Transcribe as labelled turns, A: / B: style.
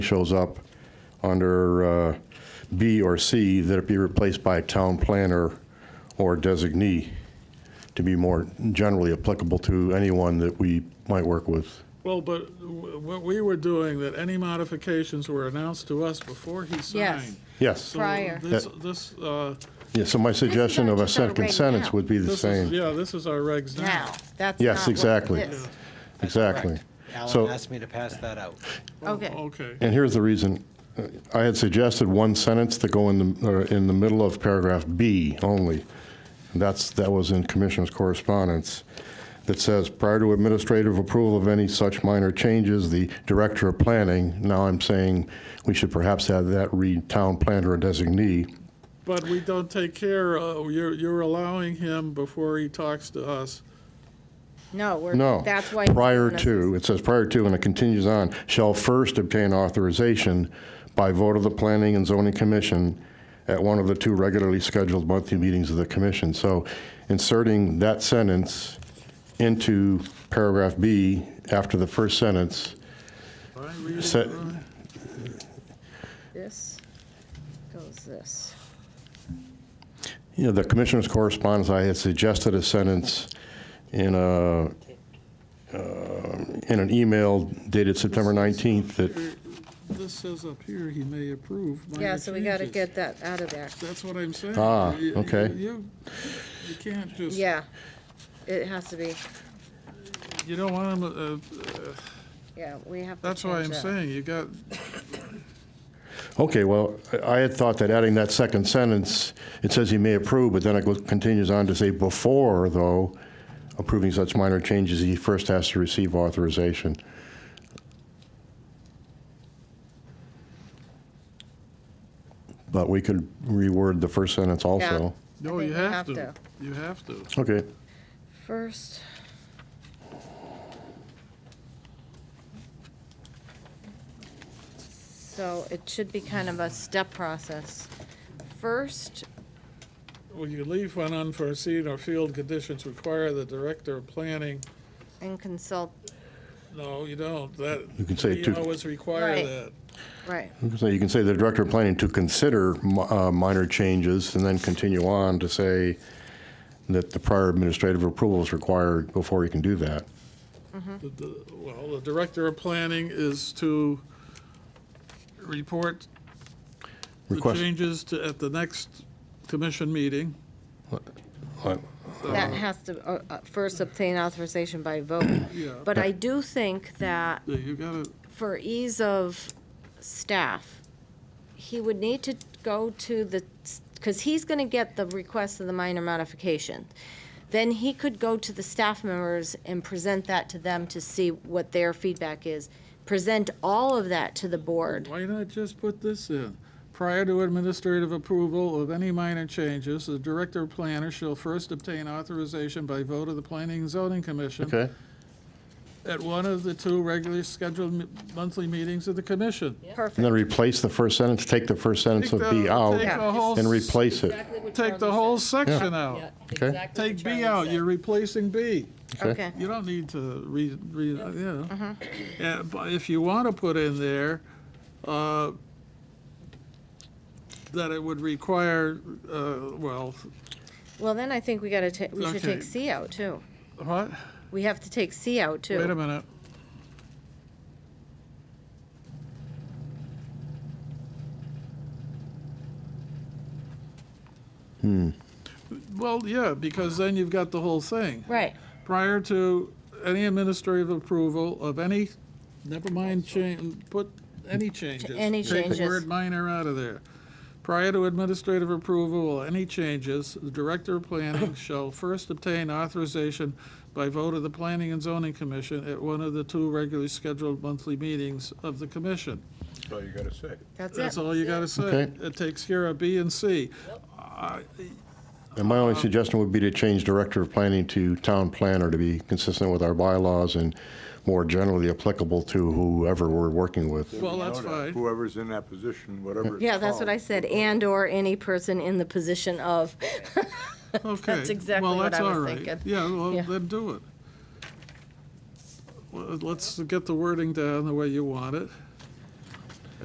A: shows up under uh, B or C, that it be replaced by town planner or designee to be more generally applicable to anyone that we might work with.
B: Well, but w- what we were doing, that any modifications were announced to us before he
C: Yes.
B: signed.
A: Yes.
B: So
C: Prior.
B: This, this, uh,
A: Yeah, so my suggestion of a
C: just our
A: second
C: reg
A: sentence
C: now.
A: would be the
B: this is,
A: same.
B: yeah, this is our regs now.
C: now. That's
A: Yes,
C: not what
A: exactly.
C: this-
A: Exactly. So-
D: Alan asked me to pass that out.
C: Okay,
B: Okay,
A: And here's the reason. Uh, I had suggested one sentence to go in the, or in the middle of paragraph B only. That's, that was in commissioner's correspondence that says, prior to administrative approval of any such minor changes, the director of planning, now I'm saying we should perhaps have that read town planner or designee.
B: but we don't take care, uh, you're, you're allowing him before he talks to us.
C: no, we're,
A: No.
C: that's why.
A: Prior to, it says prior to, and it continues on, shall first obtain authorization by vote of the Planning and Zoning Commission at one of the two regularly scheduled monthly meetings of the commission. So inserting that sentence into paragraph B after the first sentence,
B: Am I reading
A: Set-
B: it right?
C: This goes this.
A: you know, the commissioner's correspondence, I had suggested a sentence in a, uh, in an email dated September 19th that
B: This says up here, he may approve minor
C: Yeah, so we got to
B: changes.
C: get that out of there.
B: That's what I'm saying.
A: Ah,
B: You- you-
A: okay.
B: You, you can't just, you
C: Yeah, it has to be,
B: don't want him, uh,
C: yeah, we have to
B: that's why
C: change
B: I'm
C: that.
B: saying, you got,
A: Okay, well, I I had thought that adding that second sentence, it says he may approve, but then it goes- continues on to say, before, though, approving such minor changes, he first has to receive authorization. But we could reword the first sentence also.
C: I
B: no,
C: think
B: you
C: we
B: have to. You have to.
A: Okay,
C: First. So it should be kind of a step process. First,
B: Well, you leave when unforeseen or field conditions require the director of planning,
C: and consult,
B: no, you don't, that.
A: You can say
B: You
A: to-
B: always require
C: Right.
B: that.
C: right,
A: so you can say the director of planning to consider mi- uh, minor changes, and then continue on to say that the prior administrative approval is required before he can do that.
B: The- the- Well, the director of planning is to report the
A: Request-
B: changes to, at the next commission meeting.
A: Uh,
C: that has to, uh, uh, first obtain authorization by vote.
B: Yeah,
C: But I do think that
B: you gotta,
C: for ease of staff, he would need to go to the, because he's going to get the request of the minor modification. Then he could go to the staff members and present that to them to see what their feedback is. Present all of that to the board.
B: why not just put this in? Prior to administrative approval of any minor changes, the director of planner shall first obtain authorization by vote of the planning and zoning commission.
A: Okay,
B: at one of the two regularly scheduled m- monthly meetings of the commission.
A: and
C: Perfect.
A: then replace the first sentence, take the first sentence of B out,
B: Take the whole,
A: and replace it.
E: Exactly what
B: take the
E: Charlie
B: whole
E: said.
B: section out.
E: Yeah,
A: Okay.
E: exactly what
B: Take B
E: Charlie
B: out,
E: said.
B: you're replacing B.
C: Okay,
B: You don't need to read, read, uh, you know. Yeah, But if you want to put in there, uh, that it would require, uh, well,
C: well, then I think we got to, we should
B: Okay.
C: take C out, too.
B: what?
C: We have to take C out,
B: Wait a
C: too.
B: minute. Hmm. Well, yeah, because then you've got the whole thing.
C: Right,
B: Prior to any administrative approval of any, never mind change, put any changes.
C: any
B: Take the
C: changes.
B: word minor out of there. Prior to administrative approval of any changes, the Director of Planning shall first obtain authorization by vote of the Planning and Zoning Commission at one of the two regularly scheduled monthly meetings of the commission.
C: that's
B: That's
C: it.
B: all you gotta say.
A: Okay.
B: It takes care of B and C. I-
A: And my only suggestion would be to change director of planning to town planner to be consistent with our bylaws and more generally applicable to whoever we're working with.
B: Well, that's
F: Noda,
B: fine.
F: Whoever's in that position, whatever it's
C: Yeah, that's what I
F: called.
C: said, and/or any person in the position of.
B: Okay.
C: That's exactly
B: well,
C: what
B: that's
C: I was
B: all right.
C: thinking.
B: Yeah, well,
C: Yeah.
B: then do it. Well, Let's get the wording down the way you want it.